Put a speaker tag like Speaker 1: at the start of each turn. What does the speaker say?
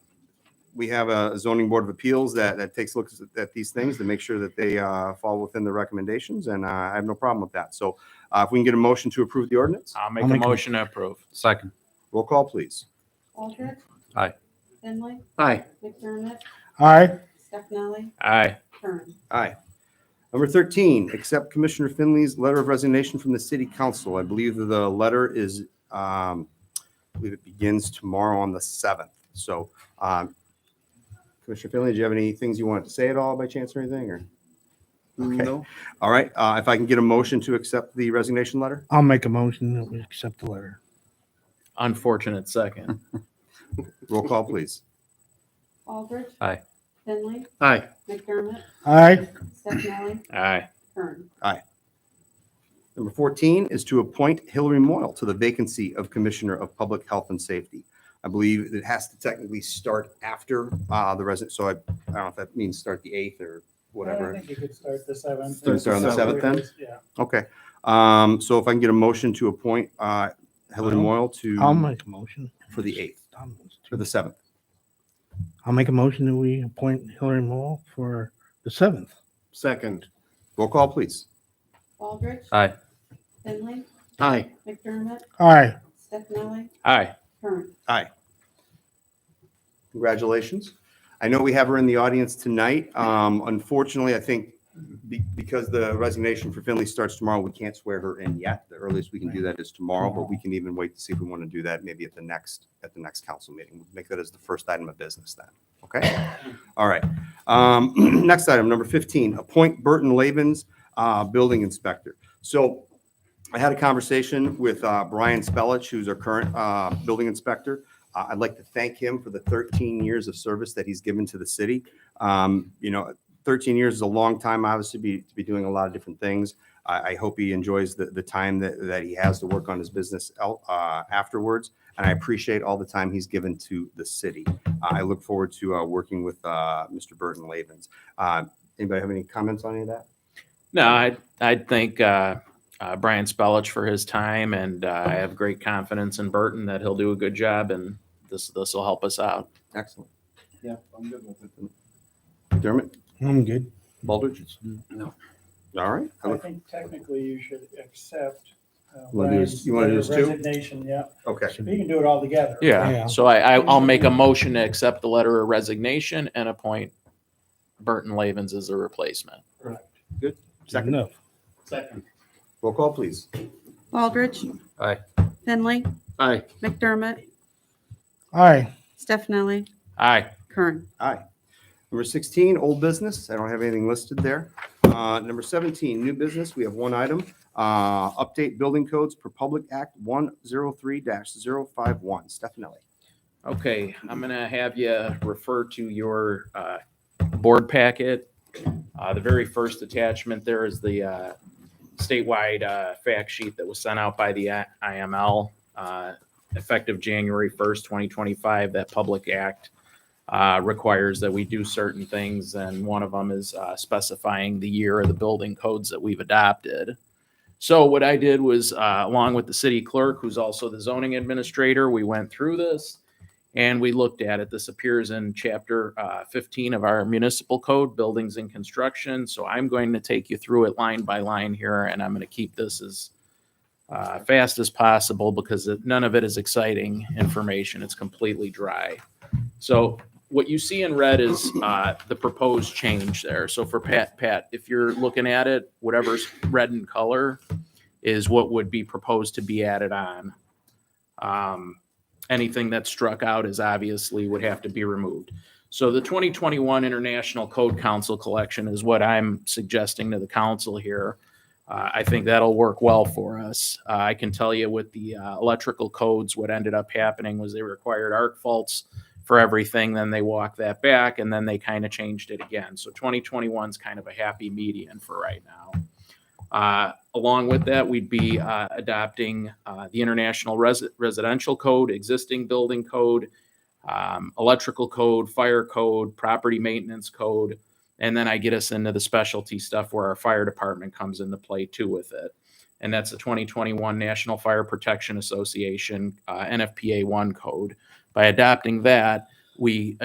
Speaker 1: we have a zoning board of appeals that, that takes looks at- at these things to make sure that they uh, fall within the recommendations, and uh, I have no problem with that. So uh, if we can get a motion to approve the ordinance,
Speaker 2: I'll make
Speaker 3: I'll
Speaker 2: a
Speaker 3: make a-
Speaker 2: motion to approve.
Speaker 4: Second.
Speaker 1: roll call, please.
Speaker 5: Aldrich.
Speaker 4: Aye.
Speaker 5: Finley.
Speaker 4: Aye.
Speaker 5: McDermott.
Speaker 3: Aye.
Speaker 5: Stefani.
Speaker 2: Aye.
Speaker 5: Kern.
Speaker 1: Aye. Number 13, accept Commissioner Finley's letter of resignation from the city council. I believe that the letter is, um, I believe it begins tomorrow on the 7th. So um, Commissioner Finley, do you have any things you wanted to say at all by chance or anything, or? Okay.
Speaker 4: No.
Speaker 1: All right, uh, if I can get a motion to accept the resignation letter?
Speaker 3: I'll make a motion that we accept the letter.
Speaker 2: Unfortunate second.
Speaker 1: Roll call, please.
Speaker 5: Aldrich.
Speaker 4: Aye.
Speaker 5: Finley.
Speaker 4: Aye.
Speaker 5: McDermott.
Speaker 3: Aye.
Speaker 5: Stefani.
Speaker 2: Aye.
Speaker 5: Kern.
Speaker 1: Number 14 is to appoint Hillary Moyle to the vacancy of Commissioner of Public Health and Safety. I believe it has to technically start after uh, the resident, so I, I don't know if that means start the 8th or
Speaker 6: I
Speaker 1: whatever.
Speaker 6: think you could start the seventh.
Speaker 1: Start- start on the seventh then?
Speaker 6: Yeah.
Speaker 1: Okay, um, so if I can get a motion to appoint uh, Hillary
Speaker 3: I'll-
Speaker 1: Moyle
Speaker 3: I'll
Speaker 1: to,
Speaker 3: make a motion.
Speaker 1: for the 8th,
Speaker 3: Tom wants
Speaker 1: for
Speaker 3: to.
Speaker 1: the 7th.
Speaker 3: I'll make a motion that we appoint Hillary Mole for the seventh.
Speaker 4: Second.
Speaker 1: Roll call, please.
Speaker 5: Aldrich.
Speaker 4: Aye.
Speaker 5: Finley.
Speaker 4: Aye.
Speaker 5: McDermott.
Speaker 3: Aye.
Speaker 5: Stefani.
Speaker 2: Aye.
Speaker 5: Kern.
Speaker 1: Congratulations. I know we have her in the audience tonight. Um, Unfortunately, I think be- because the resignation for Finley starts tomorrow, we can't swear her in yet. The earliest we can do that is tomorrow, but we can even wait to see if we want to do that maybe at the next, at the next council meeting. We'll Make that as the first item of business then, okay? All right. Um, Next item, number 15, appoint Burton Labens, uh, Building Inspector. So I had a conversation with uh, Brian Spellich, who's our current uh, building inspector. Uh, I'd like to thank him for the 13 years of service that he's given to the city. Um, You know, 13 years is a long time, obviously, be- to be doing a lot of different things. I, I hope he enjoys the, the time that, that he has to work on his business el- uh, afterwards. And I appreciate all the time he's given to the city. Uh, I look forward to uh, working with uh, Mr. Burton Lavens. Uh, Anybody have any comments on any of that?
Speaker 2: No, I, I thank, uh, uh, Brian Spellich for his time and, uh, I have great confidence in Burton that he'll do a good job and this, this will help us out.
Speaker 1: Excellent.
Speaker 4: Yeah, I'm good with it.
Speaker 1: Dermot?
Speaker 3: I'm good.
Speaker 1: Baldridge?
Speaker 4: No.
Speaker 1: All right. I
Speaker 6: I
Speaker 1: look-
Speaker 6: think technically you should accept. uh,
Speaker 1: Wanna do this-
Speaker 6: Brian's
Speaker 1: you wanna do this too?
Speaker 6: Resignation, yeah.
Speaker 1: Okay.
Speaker 6: You can do it all together.
Speaker 3: Yeah.
Speaker 2: Yeah, so I, I, I'll make a motion to accept the letter of resignation and appoint Burton Lavens as a replacement.
Speaker 3: Second
Speaker 1: Second.
Speaker 3: enough.
Speaker 6: Second.
Speaker 1: Roll call, please.
Speaker 5: Aldrich.
Speaker 4: Aye.
Speaker 5: Finley.
Speaker 4: Aye.
Speaker 5: McDermott.
Speaker 3: Aye.
Speaker 5: Stefani.
Speaker 2: Aye.
Speaker 5: Kern.
Speaker 1: Aye. Number 16, old business. I don't have anything listed there. Uh, Number 17, new business. We have one item. Uh, Update building codes per Public Act 103-051. Stefanelli.
Speaker 2: Okay, I'm gonna have you refer to your uh, board packet. Uh, The very first attachment there is the uh, statewide uh, fact sheet that was sent out by the I- IML uh, effective January 1st, 2025. That Public Act uh, requires that we do certain things, and one of them is uh, specifying the year of the building codes that we've adopted. So what I did was, uh, along with the city clerk, who's also the zoning administrator, we went through this and we looked at it. This appears in chapter uh, 15 of our municipal code, buildings and construction. So I'm going to take you through it line by line here, and I'm going to keep this as uh, fast as possible because it- none of it is exciting information. It's completely dry. So what you see in red is uh, the proposed change there. So for Pat, Pat, if you're looking at it, whatever's red in color is what would be proposed to be added on. Um, anything that's struck out is obviously would have to be removed. So the 2021 International Code Council collection is what I'm suggesting to the council here. Uh, I think that'll work well for us. Uh, I can tell you with the uh, electrical codes, what ended up happening was they required arc faults for everything, then they walked that back, and then they kind of changed it again. So 2021 is kind of a happy median for right now. Uh, Along with that, we'd be uh, adopting uh, the International Resi- Residential Code, existing building code, um, electrical code, fire code, property maintenance code. And then I get us into the specialty stuff where our fire department comes into play too with it. And that's the 2021 National Fire Protection Association, uh, NFPA 1 code. By adopting that, we